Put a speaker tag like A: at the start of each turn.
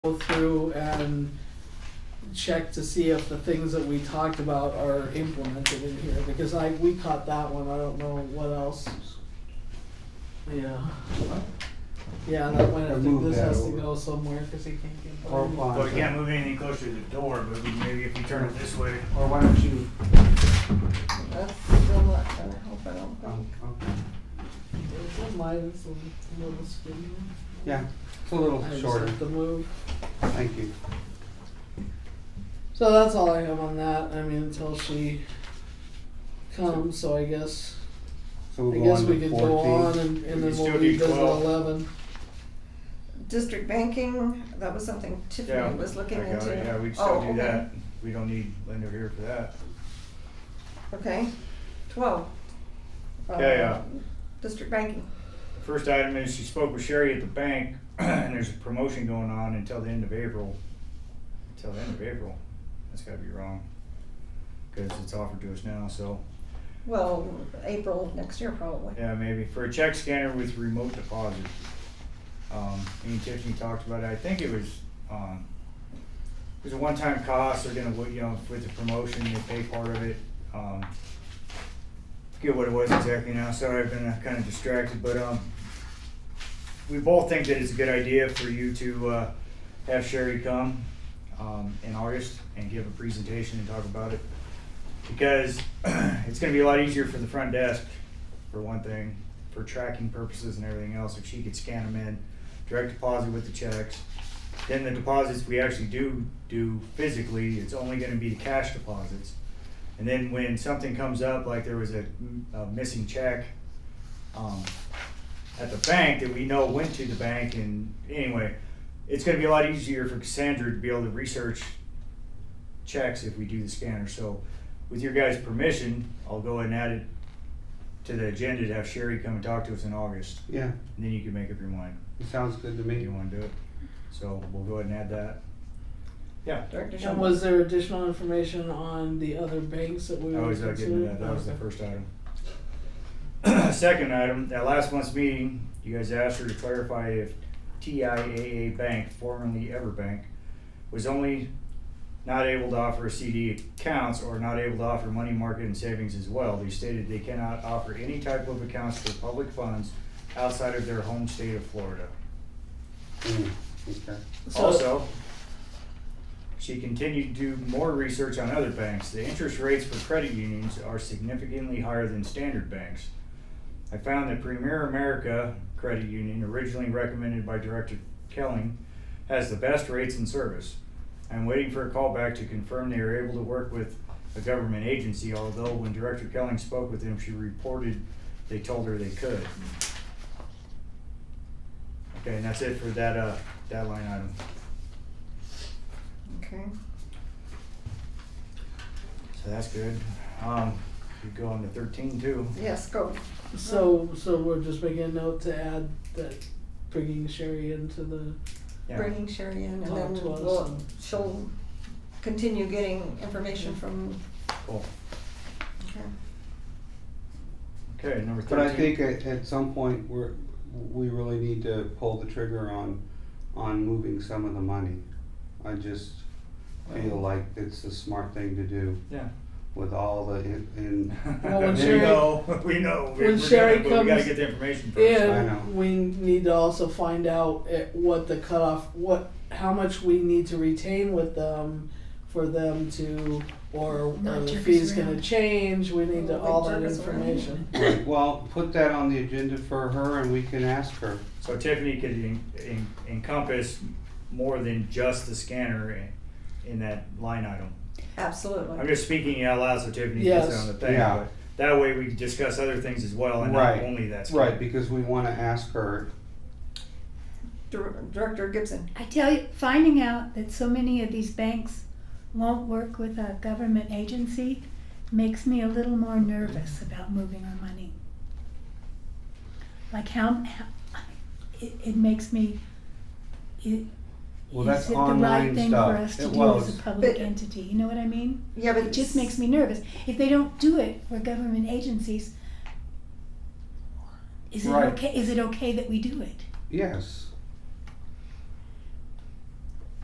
A: go through and check to see if the things that we talked about are implemented in here, because I, we caught that one, I don't know what else. Yeah, yeah, that one, I
B: I
A: think
B: moved
A: this
B: that
A: has to
B: over.
A: go somewhere, cause he can't get. by.
B: Or why?
C: Well, we can't move anything closer to the door, but we- maybe if you turn it this way.
B: Or why don't you,
A: That's still not gonna help, I don't
B: oh,
A: think.
B: okay,
A: It's a line, it's a little skinny.
B: yeah, it's a little
A: I just
B: shorter,
A: have to move.
B: thank you.
A: So that's all I have on that, I mean, until she comes, so I guess,
B: So
A: I
B: we'll go
A: guess
B: on
A: we
B: to
A: could go on
B: fourteen.
A: and, and
C: We
A: then
C: can
A: we'll
C: still do
A: revisit
C: 12.
A: eleven.
D: District banking, that was something
C: Yeah,
D: Tiffany was looking
C: I got
D: into.
C: it. Yeah, we'd
D: Oh,
C: still do
D: okay.
C: that. We don't need Linda here for that.
D: Okay, twelve. Um,
C: Yeah, yeah.
D: District banking,
C: First item is she spoke with Sherry at the bank and there's a promotion going on until the end of April. Until the end of April. That's gotta be wrong. Cause it's offered to us now, so,
D: well, April next year probably.
C: yeah, maybe for a check scanner with remote deposit. Um, me and Tiffany talked about it. I think it was, um, it was a one-time cost. They're gonna, you know, with the promotion, they pay part of it. Um, forget what it was exactly now. Sorry, I've been uh, kind of distracted, but um, we both think that it's a good idea for you to uh, have Sherry come um, in August and give a presentation and talk about it because it's going to be a lot easier for the front desk, for one thing, for tracking purposes and everything else. If she could scan them in, direct deposit with the checks. Then the deposits we actually do do physically, it's only going to be the cash deposits. And then when something comes up, like there was a, a missing check, um, at the bank that we know went to the bank and anyway, it's gonna be a lot easier for Cassandra to be able to research checks if we do the scanner, so with your guys' permission, I'll go ahead and add it to the agenda to have Sherry come and talk to us in August,
B: Yeah,
C: and then you can make up your mind
B: it sounds good to
C: if you
B: me.
C: wanna do it. So we'll go ahead and add that. Yeah,
D: Director
A: And
D: Shumway,
A: was there additional information on the other banks that we
C: I
A: were
C: was not getting to
A: considering?
C: that, that was the
A: Okay.
C: first item. Second item, at last month's meeting, you guys asked her to clarify if TIAA Bank, formerly EverBank, was only not able to offer CD accounts or not able to offer money market and savings as well. They stated they cannot offer any type of accounts for public funds outside of their home state of Florida.
B: Mm, Okay.
A: So-
C: Also, she continued to do more research on other banks. The interest rates for credit unions are significantly higher than standard banks. I found that Premier America Credit Union, originally recommended by Director Kelling, has the best rates and service. I'm waiting for a call back to confirm they are able to work with a government agency, although when Director Kelling spoke with them, she reported they told her they could. Okay, and that's it for that, uh, that line item.
D: okay.
C: So that's good. Um, you go on to thirteen too.
D: Yes, go.
A: So, so we're just making a note to add that bringing Sherry into the,
C: Yeah.
D: Bringing Sherry in and
A: Talk
D: then
A: to us
D: we'll,
A: and-
D: she'll continue getting information from,
C: Cool.
D: okay.
C: Okay, number thirteen.
B: But I think at, at some point, we're, we really need to pull the trigger on, on moving some of the money. I just feel like it's the smart thing to do
C: Yeah.
B: with all the, in- in,
A: Well, when
C: we
A: Sherry-
C: know, we know.
A: when
C: We're
A: Sherry
C: gonna- but we gotta
A: comes
C: get the information first.
B: I know.
A: and we need to also find out at what the cutoff, what, how much we need to retain with them for them to, or
E: Not
A: are the
E: jerk us
A: fee's gonna
E: around.
A: change, we need to,
D: Like
A: all that
D: jerk us around.
A: information.
B: Right, well, put that on the agenda for her and we can ask her.
C: So Tiffany could en- en- encompass more than just the scanner in, in that line item. I'm
D: Absolutely.
C: just speaking out loud so Tiffany gets it
A: Yes.
C: on the thing,
B: Yeah.
C: but that way we can discuss other things as well and not
B: Right.
C: only that. scanner.
B: Right, because we wanna ask her,
D: Dir- Director Gibson,
E: I tell you, finding out that so many of these banks won't work with a government agency makes me a little more nervous about moving our money. Like how, how it, it makes me, it,
B: well,
E: is
B: that's
E: it the right
B: online
E: thing for
B: stuff.
E: us to
B: It
E: do as
B: was,
E: a public
D: But-
E: entity, you know what I mean?
D: yeah, but.
E: It just makes me nervous. If they don't do it for government agencies, is it
B: Right.
E: okay, is it okay that we do it?
B: yes,